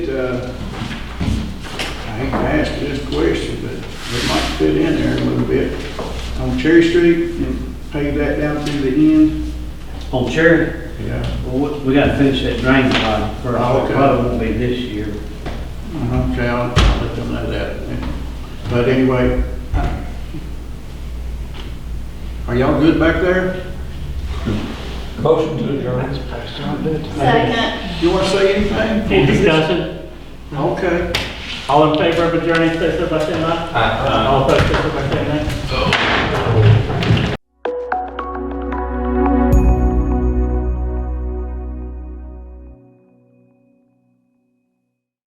Uh, I hate to ask this question, but it might fit in there a little bit. On Cherry Street, and pave that down to the end. On Cherry, Yeah. well, we- we gotta finish that drain pipe first, Okay. it probably won't be this year. Okay, I'll uh-huh, I'll let them know that. But anyway, are y'all good back there? Motion to adjourn. Second. You want to say anything? Any discussion? Okay. All in favor of adjourning, please, say by saying aye. Aye. All opposed, please, say by